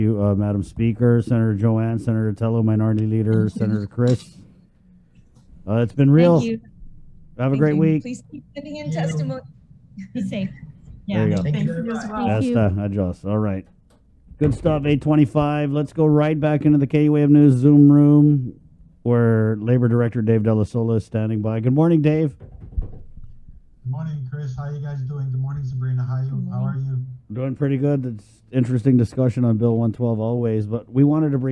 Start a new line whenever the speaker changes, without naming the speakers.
you, uh, Madam Speaker, Senator Joanne, Senator Tello, Minority Leader, Senator Chris. Uh, it's been real.
Thank you.
Have a
Thank
great
you.
week.
Please keep sending in testimony.
Be safe.
There you
Yeah.
go.
Thank
Thank
you very
you as
much.
well.
That's
you.
uh, adjust. All right. Good stuff. 825. Let's go right back into the K-Wave News Zoom room where Labor Director Dave Delasola is standing by. Good morning, Dave.
Morning, Chris. How you guys doing? Good morning, Sabrina. How you? How are you?
Doing pretty good. It's interesting discussion on Bill 112 always, but we wanted to bring